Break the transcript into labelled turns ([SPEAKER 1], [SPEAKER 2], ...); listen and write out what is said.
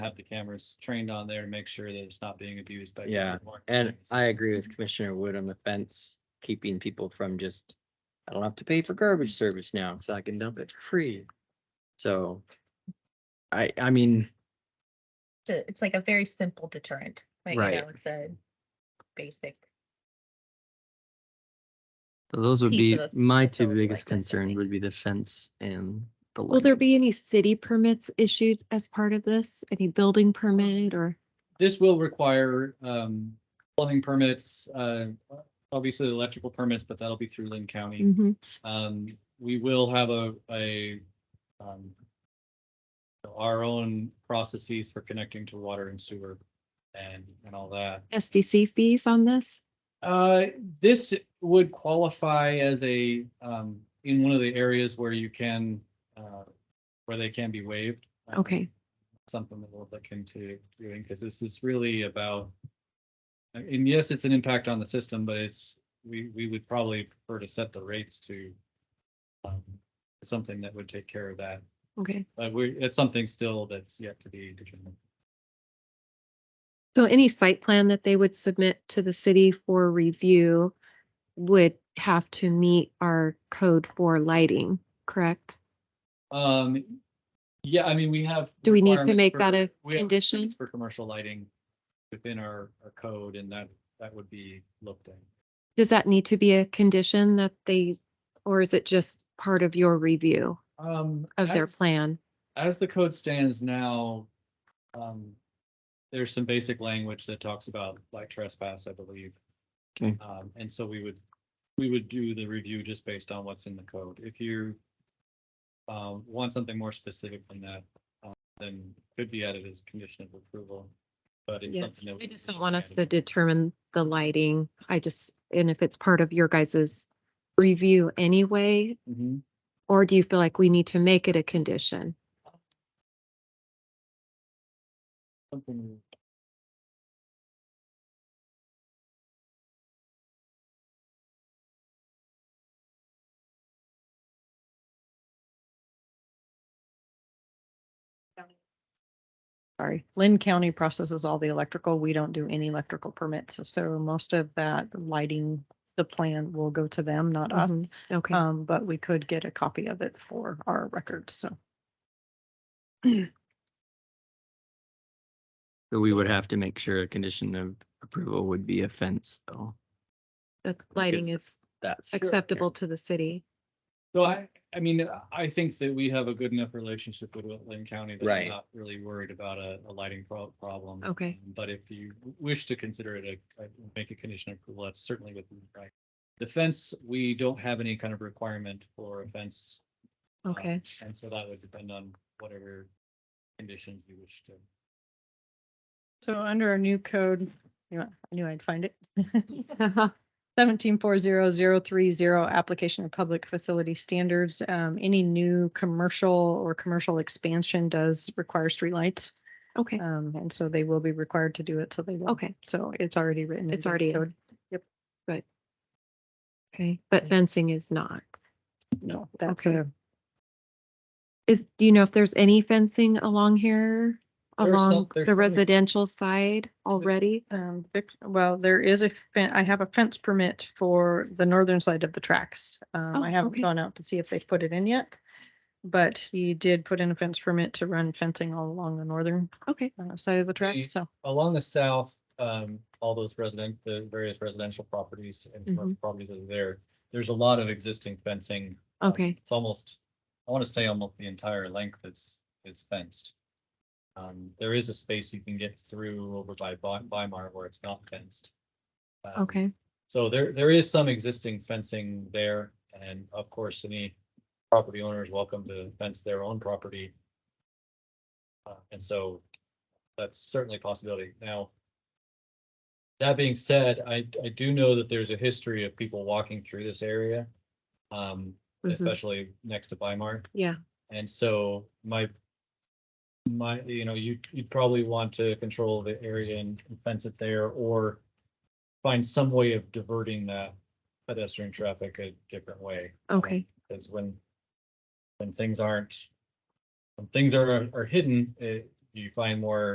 [SPEAKER 1] have the cameras trained on there to make sure that it's not being abused by.
[SPEAKER 2] Yeah,
[SPEAKER 1] people more.
[SPEAKER 2] And I agree with Commissioner Wood on the fence, keeping people from just, I don't have to pay for garbage service now, so I can dump it for free. So I, I mean,
[SPEAKER 3] to- it's like a very simple deterrent, right?
[SPEAKER 2] Right.
[SPEAKER 3] You know, it's a basic.
[SPEAKER 2] those would
[SPEAKER 3] Piece
[SPEAKER 2] be,
[SPEAKER 3] of us
[SPEAKER 2] my
[SPEAKER 3] that's
[SPEAKER 2] two
[SPEAKER 3] over, like,
[SPEAKER 2] biggest
[SPEAKER 3] that's
[SPEAKER 2] concerns
[SPEAKER 3] okay.
[SPEAKER 2] would be the fence and the.
[SPEAKER 4] Will there
[SPEAKER 2] lighting.
[SPEAKER 4] be any city permits issued as part of this? Any building permit or?
[SPEAKER 1] This will require, um, plumbing permits, uh, obviously electrical permits, but that'll be through Lynn County.
[SPEAKER 4] Mhm.
[SPEAKER 1] Um, we will have a, a, um, our own processes for connecting to water and sewer and, and all that.
[SPEAKER 4] SDC fees on this?
[SPEAKER 1] Uh, this would qualify as a, um, in one of the areas where you can, uh, where they can be waived. Um,
[SPEAKER 4] Okay,
[SPEAKER 1] Something that we'll look into doing, because this is really about, uh, and yes, it's an impact on the system, but it's, we, we would probably prefer to set the rates to um, something that would take care of that.
[SPEAKER 4] okay.
[SPEAKER 1] But we, it's something still that's yet to be determined.
[SPEAKER 4] So any site plan that they would submit to the city for review would have to meet our code for lighting, correct?
[SPEAKER 1] Um, yeah, I mean, we have.
[SPEAKER 4] Do we need to
[SPEAKER 1] requirements
[SPEAKER 4] make
[SPEAKER 1] for-
[SPEAKER 4] that a
[SPEAKER 1] we have
[SPEAKER 4] condition?
[SPEAKER 1] requirements For commercial lighting within our, our code and that, that would be looked at.
[SPEAKER 4] Does that need to be a condition that they, or is it just part of your review
[SPEAKER 1] Um.
[SPEAKER 4] of their
[SPEAKER 1] as-
[SPEAKER 4] plan?
[SPEAKER 1] As the code stands now, um, there's some basic language that talks about like trespass, I believe.
[SPEAKER 2] Okay.
[SPEAKER 1] Um, and so we would, we would do the review just based on what's in the code. If you um, want something more specific than that, um, then could be added as a condition of approval, but it's
[SPEAKER 4] Yeah.
[SPEAKER 1] something that.
[SPEAKER 4] I
[SPEAKER 1] we
[SPEAKER 4] just
[SPEAKER 1] would
[SPEAKER 4] don't want us
[SPEAKER 1] add.
[SPEAKER 4] to determine the lighting. I just, and if it's part of your guys's review anyway,
[SPEAKER 1] Mhm.
[SPEAKER 4] Or do you feel like we need to make it a condition?
[SPEAKER 1] Something.
[SPEAKER 5] Sorry, Lynn County processes all the electrical. We don't do any electrical permits. So most of that lighting, the plan will go to them, not us.
[SPEAKER 4] Mhm. Okay,
[SPEAKER 5] Um, but we could get a copy of it for our records. So
[SPEAKER 2] So we would have to make sure a condition of approval would be a fence, though.
[SPEAKER 4] the lighting is
[SPEAKER 2] That's.
[SPEAKER 4] acceptable to the city.
[SPEAKER 1] So I, I mean, I think that we have a good enough relationship with Lynn County that I'm
[SPEAKER 2] Right.
[SPEAKER 1] not really worried about a, a lighting pro- problem.
[SPEAKER 4] Okay.
[SPEAKER 1] But if you wish to consider it a, a- make a condition of approval, that's certainly within the right. The fence, we don't have any kind of requirement for a fence. um,
[SPEAKER 4] Okay,
[SPEAKER 1] And so that would depend on whatever conditions you wish to.
[SPEAKER 5] So under our new code, you know, I knew I'd find it. Seventeen four zero zero three zero, application of public facility standards. Um, any new commercial or commercial expansion does require streetlights.
[SPEAKER 4] okay,
[SPEAKER 5] Um, and so they will be required to do it, so they will.
[SPEAKER 4] Okay.
[SPEAKER 5] So it's already written.
[SPEAKER 4] It's
[SPEAKER 5] into the
[SPEAKER 4] already in.
[SPEAKER 5] code. Yep.
[SPEAKER 4] okay. But fencing is not.
[SPEAKER 5] No, that's
[SPEAKER 4] Okay.
[SPEAKER 5] a,
[SPEAKER 4] Is, do you know if there's any fencing along here?
[SPEAKER 1] There's some-
[SPEAKER 4] Along
[SPEAKER 1] there's
[SPEAKER 4] the
[SPEAKER 1] probably-
[SPEAKER 4] residential side already?
[SPEAKER 5] um, vic- well, there is a, fen- I have a fence permit for the northern side of the tracks. Um,
[SPEAKER 4] Oh,
[SPEAKER 5] I
[SPEAKER 4] okay.
[SPEAKER 5] haven't gone out to see if they've put it in yet. But he did put in a fence permit to run fencing all along the northern
[SPEAKER 4] Okay,
[SPEAKER 5] uh, side of the
[SPEAKER 1] Okay.
[SPEAKER 5] track, so.
[SPEAKER 1] Along the south, um, all those resident, the various residential properties and
[SPEAKER 4] Mm-hmm.
[SPEAKER 1] commercial properties that are there, there's a lot of existing fencing Um,
[SPEAKER 4] okay,
[SPEAKER 1] It's almost, I want to say almost the entire length is, is fenced. Um, there is a space you can get through over by Vi- Weimar where it's not fenced. Um,
[SPEAKER 4] okay.
[SPEAKER 1] So there, there is some existing fencing there and of course, any property owner is welcome to fence their own property. Uh, and so that's certainly a possibility. Now, that being said, I, I do know that there's a history of people walking through this area. Um,
[SPEAKER 5] Mm-hmm.
[SPEAKER 4] Mhm.
[SPEAKER 1] especially next to Weimar.
[SPEAKER 4] Yeah,
[SPEAKER 1] And so my, my, you know, you, you'd probably want to control the area and fence it there or find some way of diverting that pedestrian traffic a different way.
[SPEAKER 4] okay,
[SPEAKER 1] Because when, when things aren't, when things are, are hidden, eh, you find more